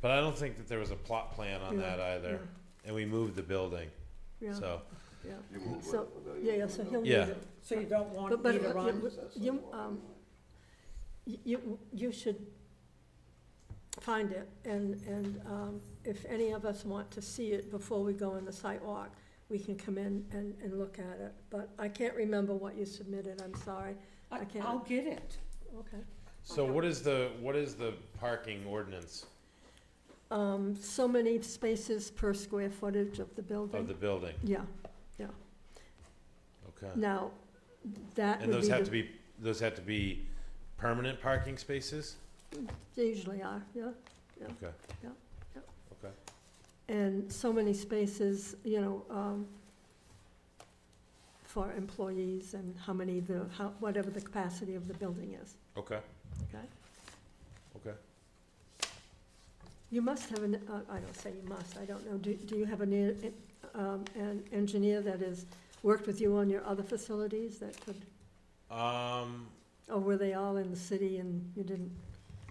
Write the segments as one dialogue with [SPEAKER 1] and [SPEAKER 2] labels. [SPEAKER 1] But I don't think that there was a plot plan on that either, and we moved the building,
[SPEAKER 2] yeah,
[SPEAKER 1] so,
[SPEAKER 2] yeah.
[SPEAKER 3] You move
[SPEAKER 2] So,
[SPEAKER 3] with the
[SPEAKER 2] yeah,
[SPEAKER 3] pavilion.
[SPEAKER 2] yeah, so he'll need
[SPEAKER 1] Yeah.
[SPEAKER 2] it.
[SPEAKER 4] So you don't want
[SPEAKER 2] But, but,
[SPEAKER 4] either
[SPEAKER 2] uh,
[SPEAKER 4] on?
[SPEAKER 2] you- you, um, y- you, you should find it, and, and, um, if any of us want to see it before we go on the site walk, we can come in and, and look at it, but I can't remember what you submitted, I'm sorry, I
[SPEAKER 4] I-
[SPEAKER 2] can't-
[SPEAKER 4] I'll get it.
[SPEAKER 2] okay.
[SPEAKER 1] so what is the, what is the parking ordinance
[SPEAKER 2] Um, so many spaces per square footage of the
[SPEAKER 1] of the
[SPEAKER 2] building,
[SPEAKER 1] building?
[SPEAKER 2] yeah,
[SPEAKER 1] Okay.
[SPEAKER 2] now, that
[SPEAKER 1] And
[SPEAKER 2] would
[SPEAKER 1] those
[SPEAKER 2] be
[SPEAKER 1] have to
[SPEAKER 2] the,
[SPEAKER 1] be, those have to be permanent parking spaces?
[SPEAKER 2] they usually are, yeah.
[SPEAKER 1] Okay.
[SPEAKER 2] Yeah, yeah.
[SPEAKER 1] Okay.
[SPEAKER 2] And so many spaces, you know, um, for employees and how many the, how, whatever the capacity of the building is.
[SPEAKER 1] Okay.
[SPEAKER 2] Okay.
[SPEAKER 1] Okay.
[SPEAKER 2] You must have an, uh, I don't say you must, I don't know, do, do you have an, en- um, an engineer that has worked with you on your other facilities that could,
[SPEAKER 1] Um,
[SPEAKER 2] or were they all in the city and you didn't?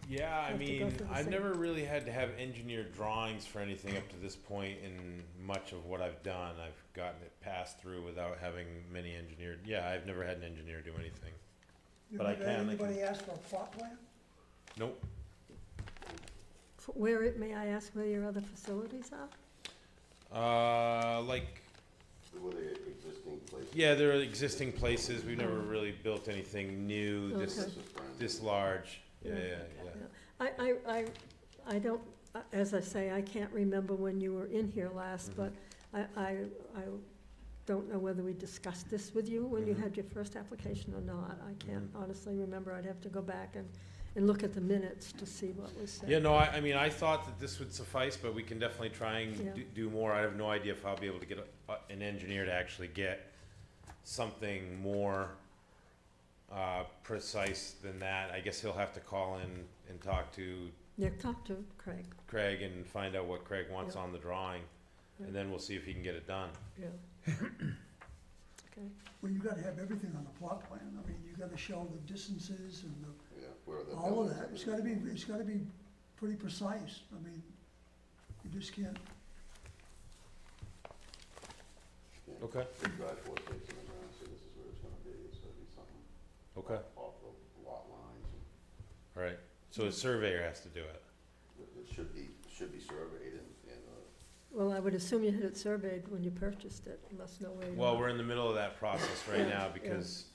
[SPEAKER 1] yeah, I
[SPEAKER 2] Have to go
[SPEAKER 1] mean,
[SPEAKER 2] through the
[SPEAKER 1] I've
[SPEAKER 2] same-
[SPEAKER 1] never really had to have engineered drawings for anything up to this point in much of what I've done. I've gotten it passed through without having many engineered, yeah, I've never had an engineer do anything. But I can, I can-
[SPEAKER 5] Anybody ask for a plot plan?
[SPEAKER 1] Nope,
[SPEAKER 2] f- Where, it- may I ask where your other facilities are?
[SPEAKER 1] uh, like,
[SPEAKER 3] Were they existing places?
[SPEAKER 1] yeah, there are existing places, we've never really built anything new, this,
[SPEAKER 2] Mm. Okay.
[SPEAKER 3] This is brand
[SPEAKER 1] this
[SPEAKER 3] new.
[SPEAKER 1] large, yeah,
[SPEAKER 2] Yeah.
[SPEAKER 1] yeah, yeah.
[SPEAKER 2] I, I, I, I don't, uh, as I say, I can't remember when you were in here last,
[SPEAKER 1] Mhm.
[SPEAKER 2] but I, I, I don't know whether we discussed this with you when you
[SPEAKER 1] Mhm.
[SPEAKER 2] had your first application or not. I can't
[SPEAKER 1] Mhm.
[SPEAKER 2] honestly remember. I'd have to go back and, and look at the minutes to see what was said.
[SPEAKER 1] Yeah, no, I, I mean, I thought that this would suffice, but we can definitely try
[SPEAKER 2] Yeah.
[SPEAKER 1] and do, do more. I have no idea if I'll be able to get a- a- an engineer to actually get something more uh, precise than that. I guess he'll have to call in and talk to
[SPEAKER 2] Yeah, talk to Craig,
[SPEAKER 1] Craig and find out what Craig wants
[SPEAKER 2] Yeah.
[SPEAKER 1] on the drawing. And then we'll see if he can get it done.
[SPEAKER 2] yeah. Okay,
[SPEAKER 5] Well, you gotta have everything on a plot plan, I mean, you gotta show the distances and the,
[SPEAKER 3] Yeah, where the
[SPEAKER 5] all of
[SPEAKER 3] buildings
[SPEAKER 5] that,
[SPEAKER 3] are.
[SPEAKER 5] it's gotta be, it's gotta be pretty precise, I mean, you just can't,
[SPEAKER 3] Yeah.
[SPEAKER 1] Okay,
[SPEAKER 3] Big drive four spaces in the ground, so this is where it's gonna be, so it'd be something
[SPEAKER 1] okay,
[SPEAKER 3] off the lot lines.
[SPEAKER 1] all right. So a surveyor has to do it.
[SPEAKER 3] It- It should be, should be surveyed and, and, uh,
[SPEAKER 2] well, I would assume you had it surveyed when you purchased it. You must know where you
[SPEAKER 1] Well,
[SPEAKER 2] are.
[SPEAKER 1] we're in the middle of that process right
[SPEAKER 2] Yeah,
[SPEAKER 1] now
[SPEAKER 2] yeah.
[SPEAKER 1] because,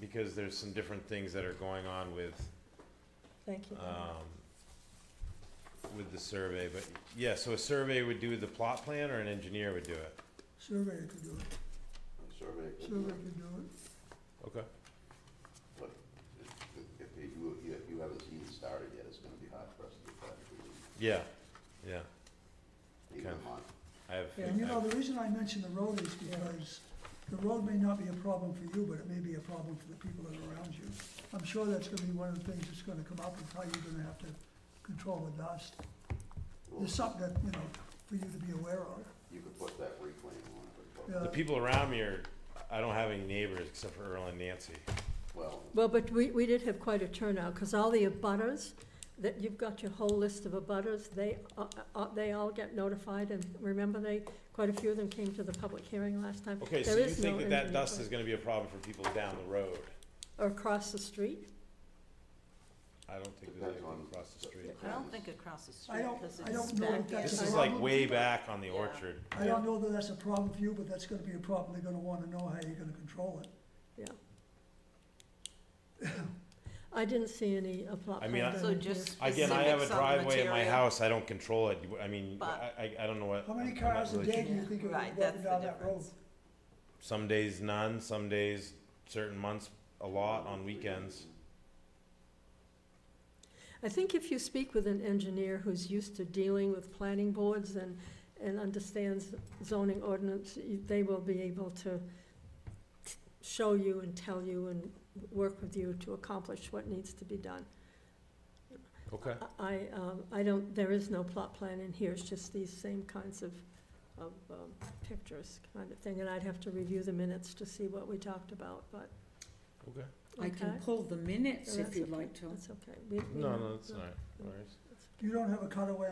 [SPEAKER 1] because there's some different things that are going on with
[SPEAKER 2] Thank you.
[SPEAKER 1] um, with the survey, but, yeah, so a survey would do the plot plan or an engineer would do it?
[SPEAKER 5] surveyor could do it,
[SPEAKER 3] a survey. could be-
[SPEAKER 5] surveyor could do it.
[SPEAKER 1] Okay.
[SPEAKER 3] But if- if you, if you haven't even started yet, it's gonna be hard for us to get that, to
[SPEAKER 1] Yeah, yeah,
[SPEAKER 3] you, even a
[SPEAKER 1] Okay.
[SPEAKER 3] month.
[SPEAKER 1] I have,
[SPEAKER 5] And you know,
[SPEAKER 1] I-
[SPEAKER 5] the reason I mention the road is because the road may not be a problem for you, but it may be a problem for the people that are around you. I'm sure that's gonna be one of the things that's gonna come up, is how you're gonna have to control the dust,
[SPEAKER 3] Well,
[SPEAKER 5] there's something that, you know, for you to be aware of.
[SPEAKER 3] You could put that reclaim on it, but-
[SPEAKER 5] Yeah.
[SPEAKER 1] the people around me are, I don't have any neighbors except for Earl and Nancy.
[SPEAKER 3] well,
[SPEAKER 2] Well, but we, we did have quite a turnout, because all the abutters, that, you've got your whole list of abutters, they, uh, uh, they all get notified, and remember they, quite a few of them came to the public hearing last time.
[SPEAKER 1] Okay, so
[SPEAKER 2] There
[SPEAKER 1] you
[SPEAKER 2] is
[SPEAKER 1] think
[SPEAKER 2] no
[SPEAKER 1] that that
[SPEAKER 2] engineer
[SPEAKER 1] dust
[SPEAKER 2] plan.
[SPEAKER 1] is gonna be a problem for people down the road?
[SPEAKER 2] Or across the street,
[SPEAKER 1] I don't think there's
[SPEAKER 3] Depends
[SPEAKER 1] anything
[SPEAKER 3] on-
[SPEAKER 1] across the street.
[SPEAKER 4] I don't think across the
[SPEAKER 5] I
[SPEAKER 4] street,
[SPEAKER 5] don't-
[SPEAKER 4] because
[SPEAKER 5] I don't
[SPEAKER 4] it's
[SPEAKER 5] know if
[SPEAKER 4] back in.
[SPEAKER 5] that's
[SPEAKER 1] This
[SPEAKER 5] a
[SPEAKER 1] is like way back on the
[SPEAKER 4] Yeah.
[SPEAKER 1] orchard.
[SPEAKER 5] I don't know that that's a problem for you, but that's gonna be a problem, they're gonna wanna know how you're gonna control it.
[SPEAKER 2] yeah. I didn't see any uh, plot
[SPEAKER 1] I mean,
[SPEAKER 2] plan
[SPEAKER 1] I-
[SPEAKER 2] done
[SPEAKER 4] So
[SPEAKER 2] in here.
[SPEAKER 4] just
[SPEAKER 1] Again, I have a
[SPEAKER 4] specifics on
[SPEAKER 1] driveway at my
[SPEAKER 4] material.
[SPEAKER 1] house, I don't control it, You- I mean,
[SPEAKER 4] But-
[SPEAKER 1] I, I, I don't know what.
[SPEAKER 5] How many
[SPEAKER 1] I'm- I'm not
[SPEAKER 5] cars a
[SPEAKER 1] really
[SPEAKER 5] day
[SPEAKER 1] sure.
[SPEAKER 5] do you think are
[SPEAKER 4] Right,
[SPEAKER 5] walking
[SPEAKER 4] that's the
[SPEAKER 5] down that road?
[SPEAKER 4] difference.
[SPEAKER 1] Some days none, some days, certain months, a lot on
[SPEAKER 3] we can-
[SPEAKER 1] weekends.
[SPEAKER 2] I think if you speak with an engineer who's used to dealing with planning boards and, and understands zoning ordinance, you- they will be able to show you and tell you and work with you to accomplish what needs to be done.
[SPEAKER 1] Okay.
[SPEAKER 2] I, um, I don't, there is no plot plan in here, it's just these same kinds of, of, um, pictures kind of thing, and I'd have to review the minutes to see what we talked about, but,
[SPEAKER 1] Okay.
[SPEAKER 4] I
[SPEAKER 2] okay?
[SPEAKER 4] can pull the minutes
[SPEAKER 2] No,
[SPEAKER 4] if
[SPEAKER 2] that's
[SPEAKER 4] you'd
[SPEAKER 2] okay.
[SPEAKER 4] like to.
[SPEAKER 2] That's okay. We- we-
[SPEAKER 1] No, no, that's all right. No worries.
[SPEAKER 5] You don't have a cutaway